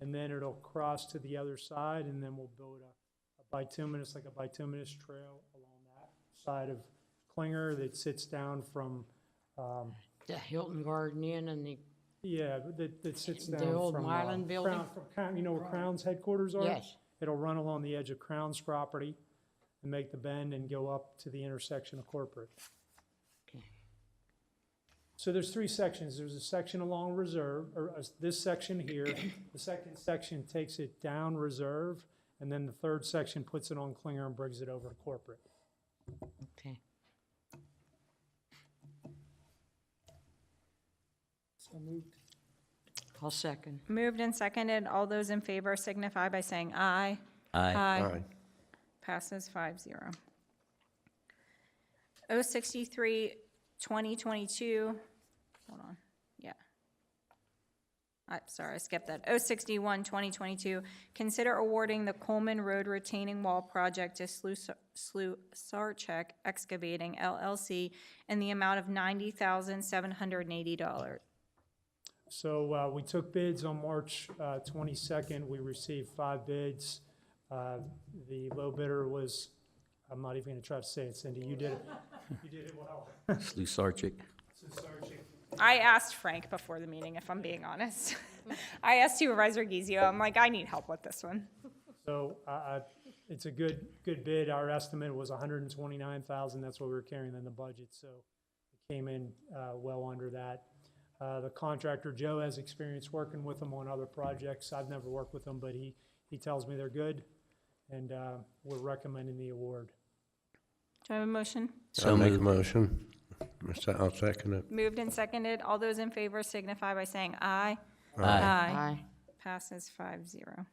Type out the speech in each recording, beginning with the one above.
and then it'll cross to the other side, and then we'll build a, a bituminous, like a bituminous trail along that side of Klinger that sits down from, um, the Hilton Garden Inn and the, yeah, but that, that sits The down old from, uh, Mylan building? Crown- from Crown- You know where Crown's headquarters are? yes, It'll run along the edge of Crown's property and make the bend and go up to the intersection of corporate. Okay. So there's three sections. There's a section along reserve, or uh, this section here. The second section takes it down reserve, and then the third section puts it on Klinger and brings it over to corporate. okay. So moved. I'll second. Moved and seconded. All those in favor signify by saying aye. Aye. Aye. Passes five zero. O sixty-three, twenty twenty-two, hold on, yeah. I'm sorry, I skipped that. O sixty-one, twenty twenty-two, consider awarding the Coleman Road retaining wall project to Slu- Slu Sarchek Excavating LLC in the amount of ninety thousand, seven hundred and eighty dollars. So uh, we took bids on March uh, 22nd. We received five bids. Uh, The low bidder was, I'm not even going to try to say it, Cindy, you did it. You did it well. Lusarchik. I asked Frank before the meeting, if I'm being honest. I asked Supervisor Gizio, I'm like, I need help with this one. So I- I- it's a good, good bid. Our estimate was 129,000. That's what we were carrying in the budget, so it came in uh, well under that. Uh, The contractor, Joe, has experience working with them on other projects. I've never worked with them, but he, he tells me they're good, and uh, we're recommending the award. Do I have a motion? So I'll make a moved. motion. I'll se- I'll second it. Moved and seconded. All those in favor signify by saying aye. Aye. Aye. Passes five zero.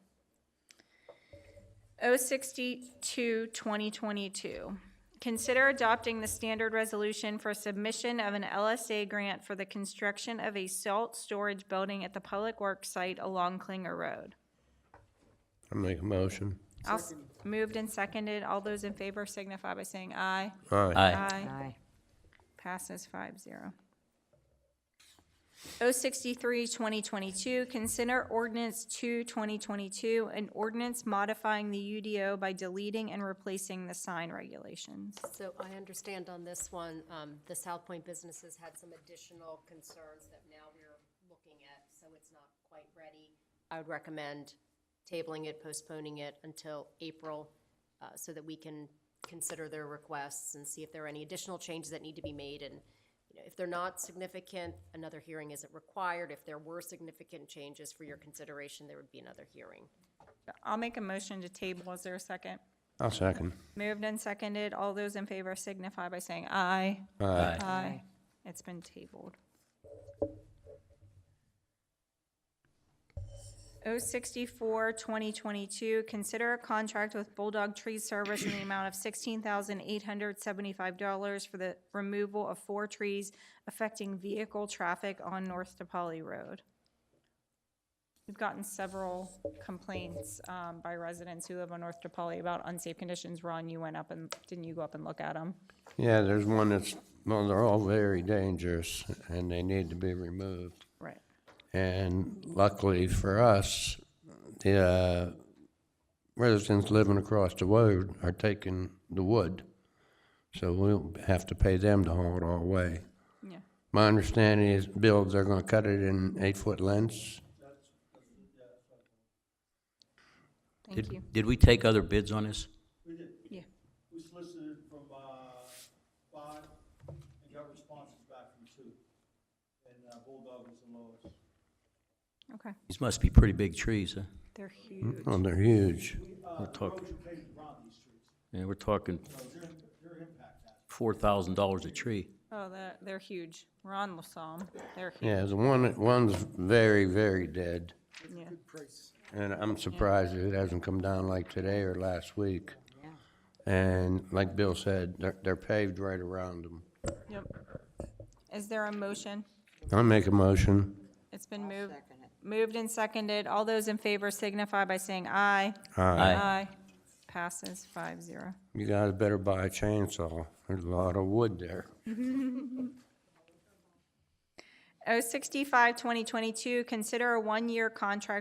O Oh sixty-two, twenty twenty-two. Consider adopting the standard resolution for submission of an LSA grant for the construction of a salt storage building at the Public Works site along Klinger Road. I'll make a motion. I'll s- Moved and seconded. All those in favor signify by saying aye. Aye. Aye. Aye. Passes 5-0. O sixty-three, twenty twenty-two, consider ordinance two, twenty twenty-two, an ordinance modifying the UDO by deleting and replacing the sign regulations. So I understand on this one, um, the South Point businesses had some additional concerns that now we're looking at, so it's not quite ready. I would recommend tabling it, postponing it until April, uh, so that we can consider their requests and see if there are any additional changes that need to be made. And, you know, if they're not significant, another hearing isn't required. If there were significant changes for your consideration, there would be another hearing. I'll make a motion to table. Is there a second? I'll second. Moved and seconded. All those in favor signify by saying aye. Aye. Aye. It's been tabled. O sixty-four, twenty twenty-two, consider a contract with Bulldog Tree Service in the amount of sixteen thousand eight hundred seventy-five dollars for the removal of four trees affecting vehicle traffic on North DePauli Road. We've gotten several complaints, um, by residents who live on North DePauli about unsafe conditions. Ron, you went up and, didn't you go up and look at them? Yeah, there's one that's, well, they're all very dangerous and they need to be removed. Right. And luckily for us, the uh, residents living across the road are taking the wood. So we'll have to pay them to haul it all away. Yeah. My understanding is, Bill, they're gonna cut it in eight-foot lengths? Thank you. Did, did we take other bids on this? Yeah. We solicited from, uh, five and got responses back from two. And uh, Bulldog was the lowest. Okay. These must be pretty big trees, huh? They're huge. Oh, they're huge. We're talking, Erosion pavement around these streets, yeah, we're talking so their, their impact has. four thousand dollars a tree. Oh, they're, they're huge. Ron saw them. They're huge. Yeah, the one, one's very, very dead, Yeah. and I'm surprised it hasn't come down like today or last week. And like Bill said, they're, they're paved right around them. Yep. Is there a motion? I'll make a motion. It's been moved, moved and seconded. All those in favor signify by saying aye. Aye. Passes five zero. You guys better buy a chainsaw, there's a lot of wood there. Oh, O sixty-five, twenty twenty-two, consider a one-year contract